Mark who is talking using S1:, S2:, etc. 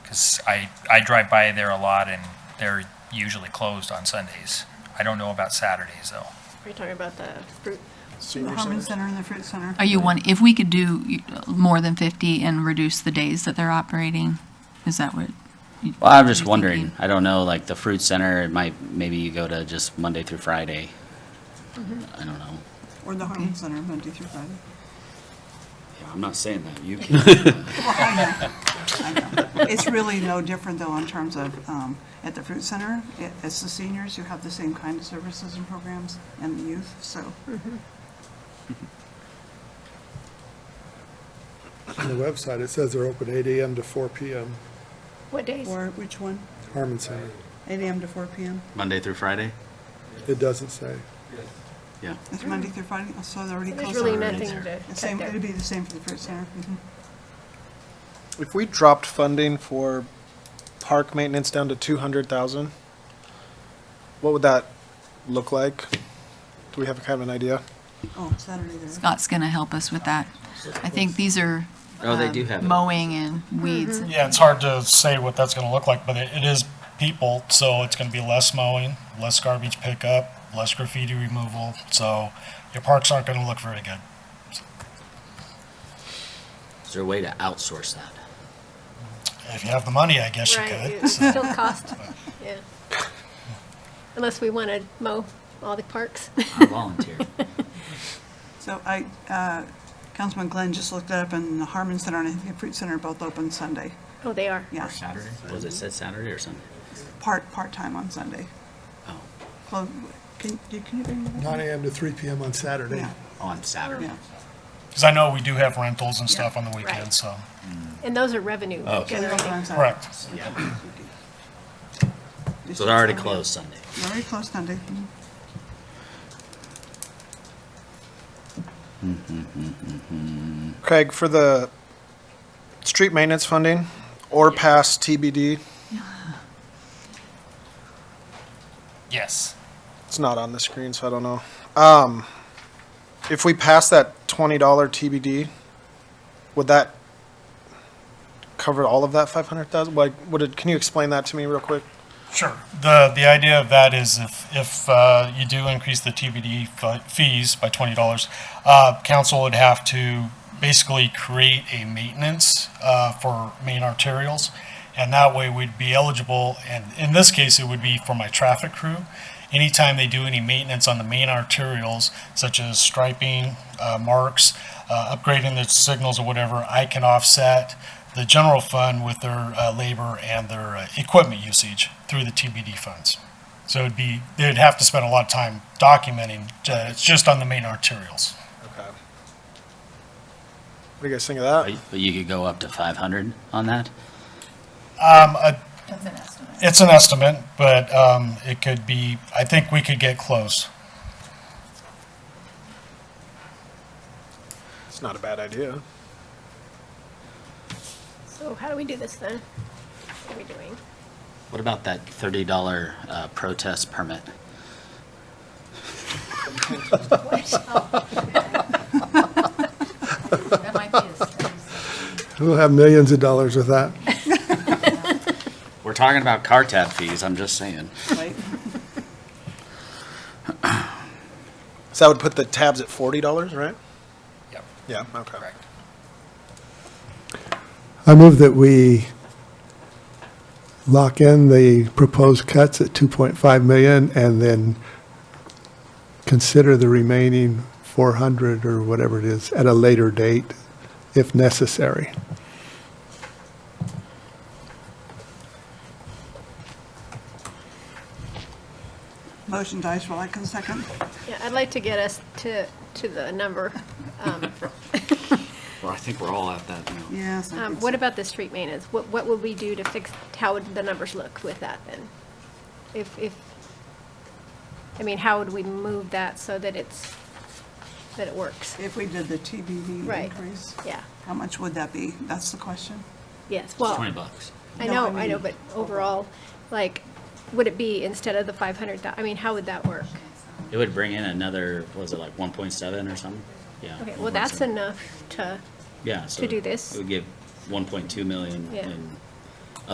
S1: Because I, I drive by there a lot and they're usually closed on Sundays. I don't know about Saturdays though.
S2: Are you talking about the fruit?
S3: The
S4: Senior
S3: Harmon
S4: centers?
S3: Center and the Fruit Center.
S5: Are you one, if we could do more than 50 and reduce the days that they're operating, is that what? you-
S6: Well, I'm just
S5: you're
S6: wondering,
S5: thinking?
S6: I don't know, like the fruit center, it might, maybe you go to just Monday through Friday. I don't know.
S3: Or the Harmon Center, Monday through Friday.
S6: I'm not saying that, you can.
S3: Well, I know, I know. It's really no different though in terms of, um, at the Fruit Center, it- it's the seniors who have the same kind of services and programs and the youth, so.
S2: Mm-hmm.
S4: On the website, it says they're open eight AM to four PM,
S2: What days?
S3: Or which one?
S4: Harmon Center.
S3: Eight AM to four PM?
S6: Monday through Friday?
S4: It doesn't say.
S6: Yeah.
S3: It's Monday through Friday, so they're already
S2: There's
S3: closed.
S2: really
S3: on Friday.
S2: nothing
S6: there.
S2: to
S3: The
S2: check
S3: Same,
S2: there.
S3: it'd be the same for the Fruit Center.
S5: Mm-hmm.
S3: mhm.
S7: If we dropped funding for park maintenance down to two hundred thousand, what would that look like? Do we have a kind of an idea?
S3: Oh, Saturday there.
S5: Scott's going to help us with that. I think these are.
S6: Oh, they do
S5: um,
S6: have it.
S5: Mowing and weeds. and-
S8: Yeah, it's hard to say what that's gonna look like, but it, it is people, so it's gonna be less mowing, less garbage pickup, less graffiti removal, so your parks aren't gonna look very good.
S6: Is there a way to outsource that?
S8: If you have the money, I guess you
S2: Right,
S8: could.
S2: it still cost, yeah. Unless we want to mow all the parks.
S6: I volunteer.
S3: So I, uh, Councilman Glenn just looked it up and the Harmon Center and I think the Fruit Center are both open Sunday.
S2: Oh, they are.
S3: Yeah,
S6: Saturday? Was it said Saturday or Sunday?
S3: part, part-time on Sunday.
S6: Oh,
S3: Close, can, you- can you bring that?
S4: Nine AM to three PM on Saturday.
S3: Yeah,
S6: Oh, on Saturday.
S3: yeah.
S8: Because I know we do have rentals and stuff on the weekends, so,
S2: And those are revenue
S3: They're
S2: generating.
S3: open on Saturday.
S8: correct.
S6: So they're already closed Sunday.
S3: They're Already closed Sunday. mhm.
S7: Craig, for the street maintenance funding or pass TBD,
S1: Yes.
S7: it's not on the screen, so I don't know. Um, if we pass that twenty dollar TBD, would that cover all of that five hundred thousand? Like, would it, can you explain that to me real quick?
S8: Sure. The, the idea of that is if, if uh, you do increase the TBD fi- fees by $20, uh, council would have to basically create a maintenance uh, for main arterials. And that way we'd be eligible, and in this case, it would be for my traffic crew. Anytime they do any maintenance on the main arterials, such as striping, uh, marks, uh, upgrading the signals or whatever, I can offset the general fund with their uh, labor and their uh, equipment usage through the TBD funds. So it'd be, they'd have to spend a lot of time documenting, uh, it's just on the main arterials.
S7: Okay. What do you guys think of that?
S6: But but you could go up to five hundred on that?
S8: Um, uh, It's an estimate, but um, it could be, I think we could get close.
S7: It's not a bad idea.
S2: So how do we do this then? What are we doing?
S6: What about that thirty dollar uh, protest permit?
S5: That might be a-
S4: We'll have millions of dollars with that.
S6: We're talking about car tab fees, I'm just saying.
S3: Right?
S7: So that would put the tabs at forty dollars, right?
S1: Yep.
S7: Yeah, okay.
S1: Correct.
S4: I move that we lock in the proposed cuts at 2.5 million and then consider the remaining 400 or whatever it is at a later date if necessary.
S3: Motion dies while I can second.
S2: Yeah, I'd like to get us to, to the number. Um,
S6: Well, I think we're all at that now.
S3: Yes. I
S2: um,
S3: think
S2: What
S3: so.
S2: about the street maintenance? What, what would we do to fix, how would the numbers look with that then? If, if, I mean, how would we move that so that it's, that it works?
S3: If we did the TBD
S2: Right.
S3: increase,
S2: Yeah,
S3: how much would that be? That's the question.
S2: yes,
S6: It's
S2: well.
S6: Twenty bucks.
S2: I
S3: No,
S2: know,
S3: I
S2: I know,
S3: mean-
S2: but overall, like, would it be instead of the five hundred? I mean, how would that work?
S6: It would bring in another, what was it like one point seven or something? Yeah.
S2: Okay, well, that's
S6: 1.7.
S2: enough to,
S6: Yeah, so.
S2: do this.
S6: It would give one point two million
S2: Yeah.
S6: in